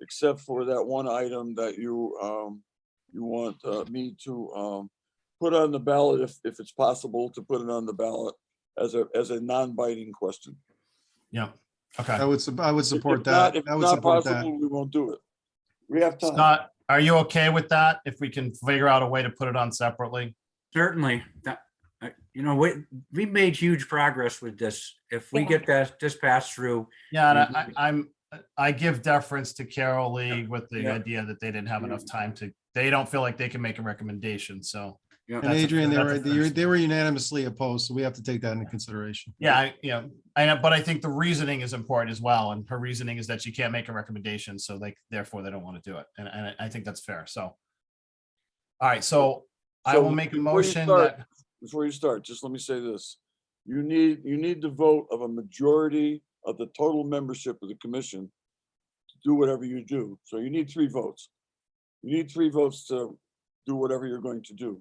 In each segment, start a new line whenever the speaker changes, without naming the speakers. except for that one item that you, um, you want, uh, me to, um, put on the ballot if, if it's possible to put it on the ballot as a, as a non-biting question.
Yeah,
I
okay.
would, sup- I would
If
support
not-
that.
If
I would
not
support that.
possible, we won't do it. We have time.
Scott, are you okay with that? If we can figure out a way to put it on separately?
Certainly, that, uh, you know, we, we made huge progress with this. If we
Yeah.
get that, this passed through,
Yeah, and I, I- I'm, I give deference to Carol Lee with the
Yeah.
idea that they didn't have enough time to, they don't feel like they can make a recommendation, so.
you know,
And
That's a-
Adrian, they
that's a
were, they were-
first.
they were unanimously opposed, so we have to take that into consideration.
Yeah, I, you know, I know, but I think the reasoning is important as well, and her reasoning is that she can't make a recommendation, so like, therefore they don't want to do it, and, and I- I think that's fair, so. All right, so I
So
will make a
before you
motion
start-
that,
Before you start, just let me say this. You need, you need the vote of a majority of the total membership of the commission to do whatever you do. So you need three votes. You need three votes to do whatever you're going to do.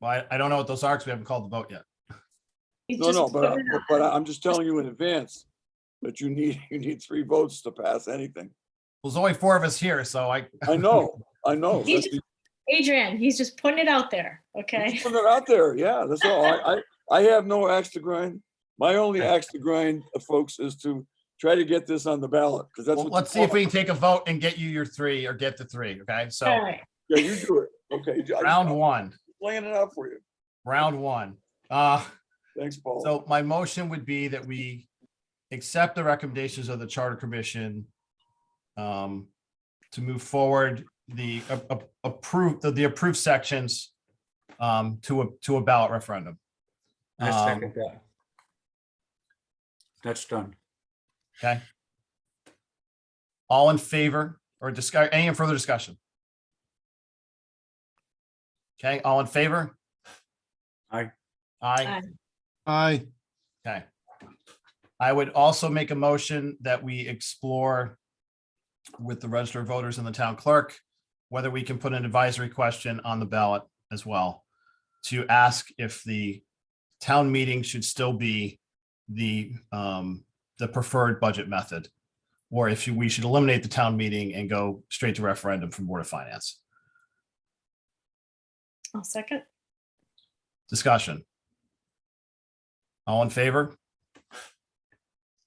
well, I, I don't know what those are, because we haven't called the vote yet.
He's
No,
just
no, but, uh, I-
put it
but- but I- I'm just telling you in advance that you need, you need three votes to pass anything.
Well, There's only four of us here, so I,
I know, I know.
He's
That's
just out. Adrian, he's just putting it out there, okay?
Put it out there, yeah, that's all. I, I, I have no axe to grind. My only axe to grind, uh, folks, is to try to get this on the ballot, because that's
Well,
what.
let's see
you
if we can take a vote and get you your three or get the three. Okay,
All
so
right.
want. Yeah, you do it. Okay, I-
round
I'm
one,
Laying it out for you.
round one. Uh,
Thanks, Paul.
so my motion would be that we accept the recommendations of the Charter Commission um, to move forward the a- a- approved, the- the approved sections um, to a, to a ballot referendum.
I
Um,
second that. That's done.
Okay. All in favor or discuss, any further discussion? Okay, all in favor?
Aye.
Aye,
Aye.
I,
okay. I would also make a motion that we explore with the registered voters and the town clerk, whether we can put an advisory question on the ballot as well to ask if the town meeting should still be the, um, the preferred budget method. Or if we should eliminate the town meeting and go straight to referendum from Board of Finance.
I'll second.
Discussion. All in favor?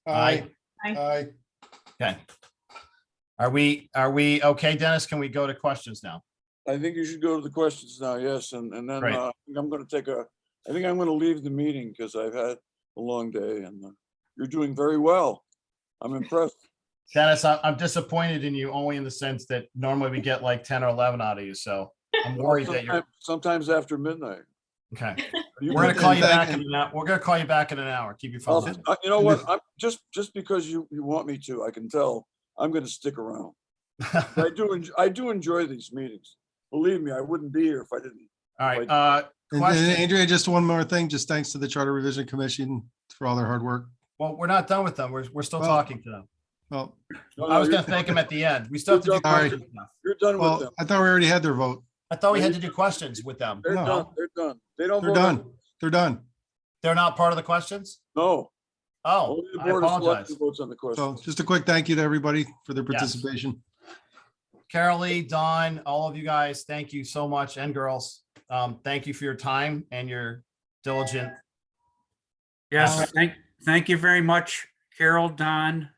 I,
Aye.
I,
Okay. Are we, are we, okay, Dennis, can we go to questions now?
I think you should go to the questions now, yes, and, and then,
Right.
uh, I think I'm gonna take a, I think I'm gonna leave the meeting, because I've had a long day, and uh, you're doing very well. I'm impressed.
Dennis, I- I'm disappointed in you only in the sense that normally we get like 10 or 11 out of you, so I'm worried that you're,
Sometime- Sometimes after midnight.
okay.
You can
We're gonna
do
call you
And thank-
back in an hour. We're gonna call you back in an hour. Keep your phone
I'll-
on.
I- Uh, You know
And
what,
if-
I'm, just, just because you, you want me to, I can tell, I'm gonna stick around. I do, en- I do enjoy these meetings. Believe me, I wouldn't be here if I didn't.
All right, uh,
and-
Question.
and Andrea, just one more thing, just thanks to the Charter Revision Commission for all their hard work.
well, we're not done with them. We're, we're still
Well,
talking to them.
Well,
No,
I
no,
was
you're-
gonna thank them at the end. We still have to do
You're done.
questions. now.
You're done with
well,
them.
I thought we already had their vote.
I thought we had to do questions with them.
They're
no.
done, they're done. They don't.
They're
vote on-
done. They're done.
They're not part of the questions?
No.
Oh,
only the
I
Board of Selectmen
apologize.
Votes on the
So
question.
just a quick thank you to everybody for their
Yes.
participation.
Carol Lee, Don, all of you guys, thank you so much, and girls. Um, thank you for your time and your diligent.
Yes,
Alright.
Uh, thank, thank you very much, Carol, Don,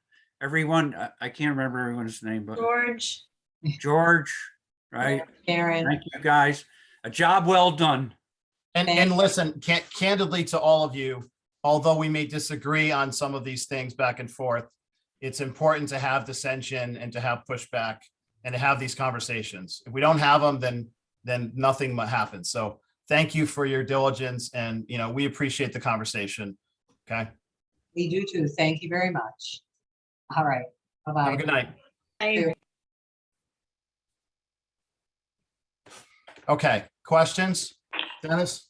everyone. I- I can't remember everyone's name, but
George,
George, right?
Karen,
Thank you, guys. A job well done.
And, and listen, can candidly to all of you, although we may disagree on some of these things back and forth, it's important to have dissension and to have pushback and to have these conversations. If we don't have them, then, then nothing mu- happens. So thank you for your diligence and, you know, we appreciate the conversation. Okay,
we do too. Thank you very much. All right.
have
Bye-bye.
a good night.
I agree.
Okay, questions? Dennis,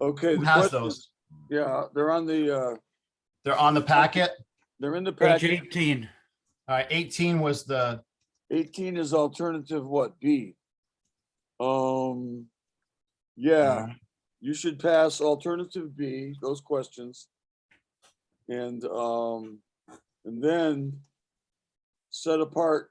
Okay.
who
the
has
questions-
those?
Yeah, they're on the, uh,
They're on the packet.
they're in the
Page
package.
18.
All right, eighteen was the,
Eighteen is alternative what, B? Um, yeah, you should pass alternative B, those questions. And, um, and then set apart